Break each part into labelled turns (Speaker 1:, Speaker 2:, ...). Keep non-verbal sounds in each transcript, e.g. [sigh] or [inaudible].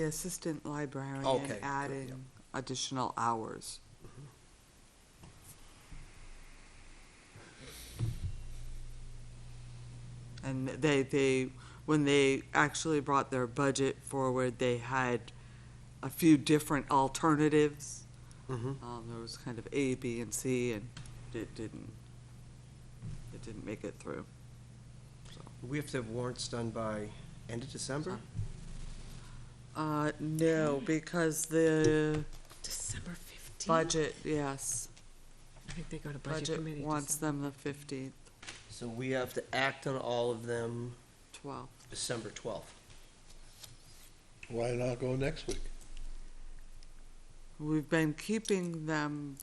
Speaker 1: The assistant librarian
Speaker 2: Okay, good,
Speaker 1: adding
Speaker 2: yeah.
Speaker 1: additional hours. And they, they, when they actually brought their budget forward, they had a few different alternatives.
Speaker 2: Mhm.
Speaker 1: Um, there was kind of A, B, and C, and it didn't, it didn't make it through.
Speaker 2: We have to have warrants done by end of December?
Speaker 1: Uh, no, because the
Speaker 3: December fifteenth.
Speaker 1: budget, yes,
Speaker 3: I think they go to budget
Speaker 1: budget
Speaker 3: committee.
Speaker 1: wants them
Speaker 3: December-
Speaker 1: the fifteenth,
Speaker 2: So we have to act on all of them
Speaker 1: twelfth.
Speaker 2: December 12th.
Speaker 4: Why not go next week?
Speaker 1: We've been keeping them,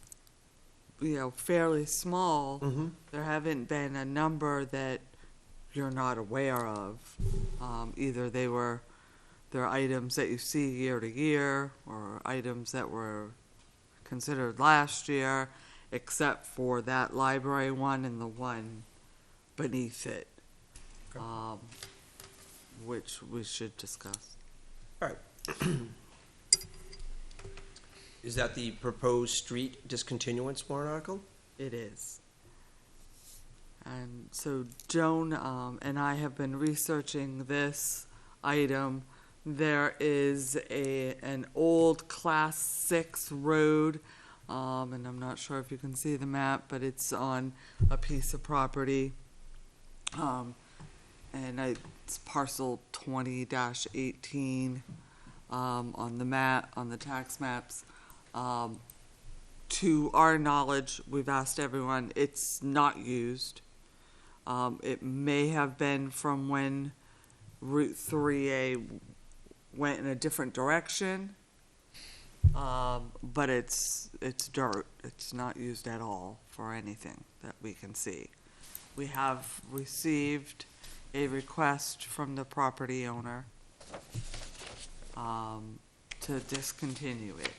Speaker 1: you know, fairly small.
Speaker 2: Mm-hmm.
Speaker 1: There haven't been a number that you're not aware of. Um, either they were, they're items that you see year to year, or items that were considered last year, except for that library one and the one beneath it.
Speaker 2: Okay.
Speaker 1: Um, which we should discuss.
Speaker 2: [clears throat] Is that the proposed street discontinuance warrant article?
Speaker 1: It is. And so Joan um, and I have been researching this item. There is a an old Class Six road, um, and I'm not sure if you can see the map, but it's on a piece of property. Um, and I, it's parcel twenty eighteen um, on the map on the tax maps. Um, to our knowledge, we've asked everyone, it's not used. Um, it may have been from when Route three A went in a different direction. Um, but it's, it's dirt. It's not used at all for anything that we can see. We have received a request from the property owner, um, to discontinue it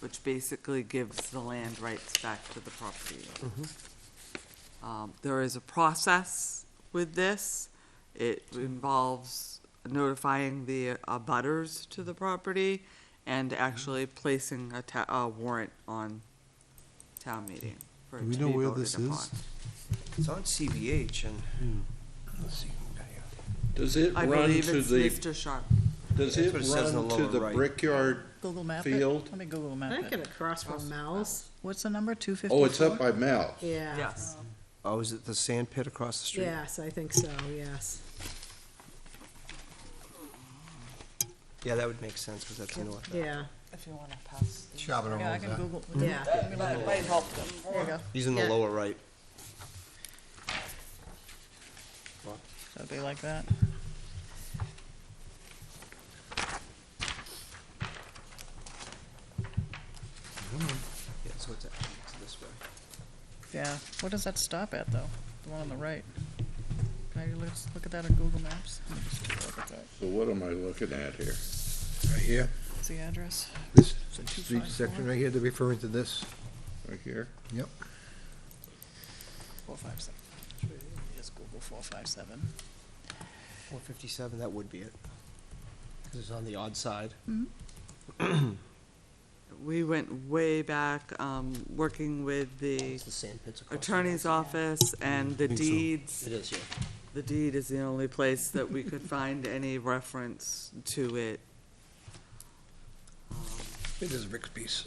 Speaker 1: which basically gives the land rights back to the property.
Speaker 4: Mm-hmm.
Speaker 1: Um, There is a process with this. It involves notifying the abutters to the property
Speaker 4: Mm-hmm.
Speaker 1: and actually placing a ta- a warrant on town meeting for it
Speaker 4: Do we
Speaker 1: to
Speaker 4: know
Speaker 1: be
Speaker 4: where
Speaker 1: voted
Speaker 4: this is?
Speaker 1: upon.
Speaker 2: It's on CBH and. Hmm. Let's see.
Speaker 5: Does it
Speaker 1: I
Speaker 5: run
Speaker 1: believe
Speaker 5: to
Speaker 1: it's
Speaker 5: the,
Speaker 1: Mr. Sharp.
Speaker 5: does
Speaker 2: That's
Speaker 5: it
Speaker 2: what it says in
Speaker 5: run
Speaker 2: the
Speaker 5: to
Speaker 2: lower
Speaker 5: the
Speaker 2: right.
Speaker 5: brickyard?
Speaker 6: Google map
Speaker 5: Field.
Speaker 6: it. Let me Google
Speaker 3: I
Speaker 6: map
Speaker 3: think
Speaker 6: it.
Speaker 3: it across from Mal's.
Speaker 6: What's the number? Two fifty.
Speaker 5: Oh, it's up by Mal.
Speaker 3: Yeah.
Speaker 1: Yes.
Speaker 2: Oh, is it the sand pit across the street?
Speaker 3: Yes, I think so, yes.
Speaker 2: Yeah, that would make sense because that's north.
Speaker 3: Yeah,
Speaker 6: If you wanna pass. these.
Speaker 7: Shop it
Speaker 6: Yeah, I
Speaker 7: around
Speaker 6: can
Speaker 7: that.
Speaker 6: Google.
Speaker 3: yeah.
Speaker 6: Let me look. There you go.
Speaker 2: He's in the
Speaker 3: Yeah.
Speaker 2: lower right.
Speaker 6: So it'd be like that.
Speaker 2: Yeah, so it's actually it's this way.
Speaker 6: Yeah. What does that stop at though? The one on the right. Can I just look at that on Google Maps? Let me just take a look at that.
Speaker 5: So what am I looking at here?
Speaker 7: Right here,
Speaker 6: What's the address?
Speaker 7: this
Speaker 6: Is it two
Speaker 7: street
Speaker 6: five
Speaker 7: section
Speaker 6: four?
Speaker 7: right here, they're referring to this.
Speaker 5: Right here?
Speaker 7: Yep.
Speaker 6: Four five seven. That's what it is. Just Google four five seven.
Speaker 2: Four fifty-seven, that would be it. Because it's on the odd side.
Speaker 1: We went way back, um, working with the
Speaker 2: It's the sand pits across. the
Speaker 1: attorney's office and the
Speaker 2: think so.
Speaker 1: deeds
Speaker 2: road. It is, yeah.
Speaker 1: The deed is the only place that we could find any reference to it.
Speaker 7: It is Rick's piece.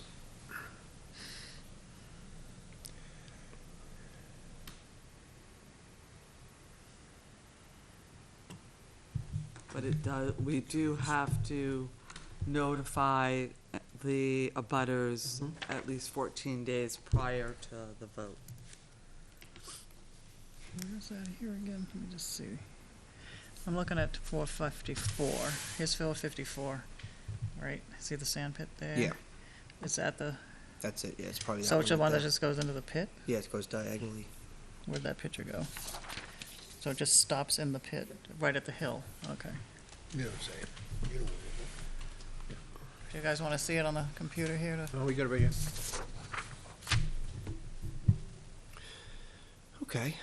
Speaker 1: But it does, we do have to notify the abutters
Speaker 7: Mm-hmm.
Speaker 1: at least fourteen days prior to the vote.
Speaker 6: Where's that here again? Let me just see. I'm looking at four fifty-four. Here's Phil fifty-four. Right? See the sand pit there?
Speaker 2: Yeah.
Speaker 6: It's at the,
Speaker 2: That's it, yeah, it's probably.
Speaker 6: so it's the
Speaker 2: one
Speaker 6: one that just goes into the pit?
Speaker 2: Yeah, it goes diagonally.
Speaker 6: Where'd that picture go? So it just stops in the pit, right at the hill, okay.
Speaker 7: You know what I'm saying?
Speaker 6: Do you guys wanna see it on the computer here to?
Speaker 7: No, Oh, we got it right here.
Speaker 2: Okay.